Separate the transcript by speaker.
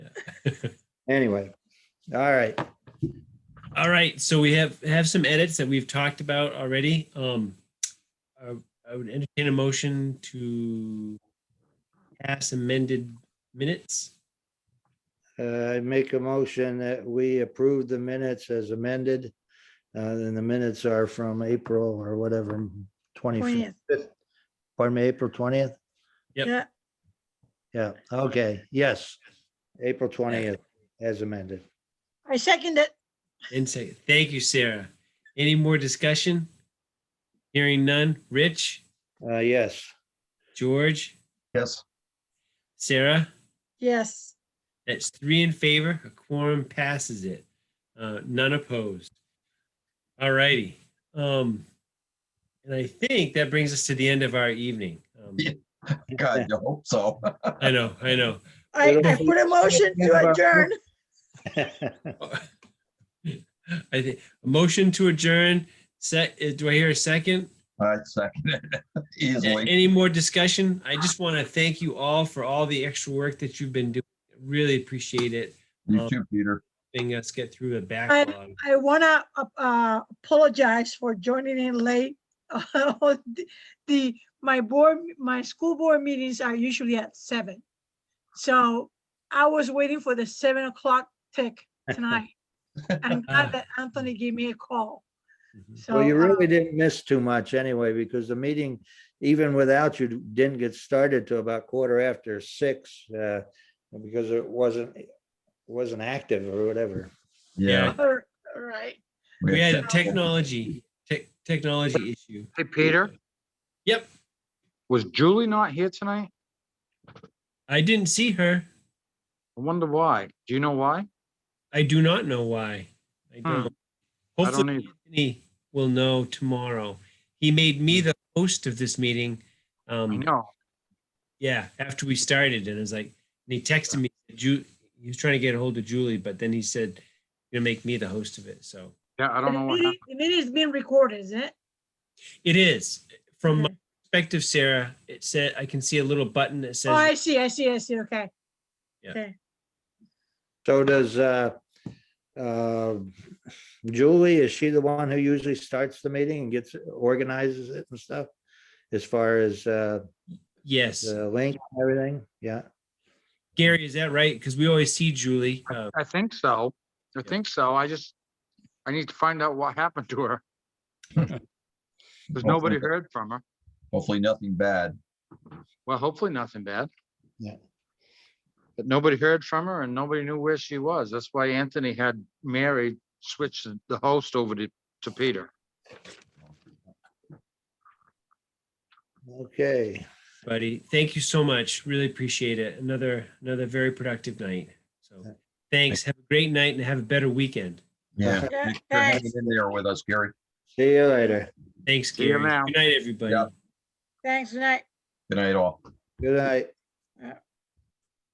Speaker 1: Anyway, all right.
Speaker 2: All right, so we have, have some edits that we've talked about already. Um, I I would entertain a motion to pass amended minutes.
Speaker 1: Uh, I make a motion that we approve the minutes as amended. Uh, Then the minutes are from April or whatever, 25th.
Speaker 3: 20th.
Speaker 1: Pardon me, April 20th?
Speaker 2: Yep.
Speaker 3: Yeah,
Speaker 1: Yeah, okay, yes. April 20th as amended.
Speaker 3: I second it.
Speaker 2: And say, thank you, Sarah. Any more discussion? Hearing none. Rich,
Speaker 1: Uh, Yes,
Speaker 2: George,
Speaker 4: Yes.
Speaker 2: Sarah?
Speaker 3: Yes,
Speaker 2: That's three in favor. A quorum passes it. Uh, none opposed. All righty. Um, and I think that brings us to the end of our evening. Um,
Speaker 4: Yeah. God, you hope so.
Speaker 2: I know, I know.
Speaker 3: I, I
Speaker 1: Little-
Speaker 3: put a motion to adjourn.
Speaker 2: I think motion to adjourn. Set. Do I hear a second?
Speaker 4: I second it
Speaker 2: A-
Speaker 4: easily.
Speaker 2: Any more discussion? I just want to thank you all for all the extra work that you've been doing. Really appreciate it.
Speaker 4: You too, Peter.
Speaker 2: Helping us get through the backlog.
Speaker 3: I wanna uh, uh, apologize for joining in late. Oh, The, my board, my school board meetings are usually at seven. So I was waiting for the seven o'clock tick tonight. I'm glad that Anthony gave me a call,
Speaker 2: Mhm.
Speaker 3: so.
Speaker 1: well, you
Speaker 3: uh,
Speaker 1: really didn't miss too much anyway, because the meeting, even without you, didn't get started till about quarter after six. uh, Because it wasn't, wasn't active or whatever.
Speaker 2: Yeah.
Speaker 3: uh, all Right,
Speaker 2: We had a
Speaker 4: tech-
Speaker 2: technology, tech, technology issue.
Speaker 5: Hey, Peter?
Speaker 2: Yep.
Speaker 5: Was Julie not here tonight?
Speaker 2: I didn't see her.
Speaker 5: I wonder why. Do you know why?
Speaker 2: I do not know why. I
Speaker 5: Hmm.
Speaker 2: don't.
Speaker 5: I don't
Speaker 2: Hopefully Anthony will know tomorrow. He made me the host of this meeting.
Speaker 5: I
Speaker 2: Um,
Speaker 5: know.
Speaker 2: yeah, after we started and it was like, and he texted me, Ju, he was trying to get a hold of Julie, but then he said, you're gonna make me the host of it. So
Speaker 5: Yeah,
Speaker 3: the
Speaker 5: I don't know what
Speaker 3: meeting,
Speaker 5: happened.
Speaker 3: the meeting's being recorded, isn't it?
Speaker 2: it is, from my
Speaker 3: Okay.
Speaker 5: Mm-hmm.
Speaker 2: perspective, Sarah, it said, I can see a little button that
Speaker 3: Oh, I
Speaker 2: says,
Speaker 3: see, I see, I see, okay.
Speaker 2: Yeah.
Speaker 3: Okay.
Speaker 1: So does uh, uh, Julie, is she the one who usually starts the meeting and gets, organizes it and stuff? As far as uh,
Speaker 2: yes.
Speaker 1: the link, and everything, yeah.
Speaker 2: Gary, is that right? Because we always see Julie. Uh,
Speaker 5: I think so. I think so. I just, I need to find out what happened to her. Because nobody heard from her.
Speaker 4: Hopefully nothing bad.
Speaker 5: Well, hopefully nothing bad.
Speaker 1: Yeah.
Speaker 5: But nobody heard from her and nobody knew where she was. That's why Anthony had Mary switch the- the host over to, to Peter.
Speaker 1: Okay,
Speaker 2: buddy. Thank you so much. Really appreciate it. Another another very productive night. So thanks. Have a great night and have a better weekend.
Speaker 4: Yeah.
Speaker 3: Yeah,
Speaker 4: They're hanging
Speaker 3: thanks,
Speaker 4: in there with us, Gary.
Speaker 1: see you later.
Speaker 2: Thanks,
Speaker 5: See you
Speaker 2: Gary.
Speaker 5: now.
Speaker 2: Good night, everybody.
Speaker 4: Yeah.
Speaker 3: thanks, good night.
Speaker 4: Good night all.
Speaker 1: Good night.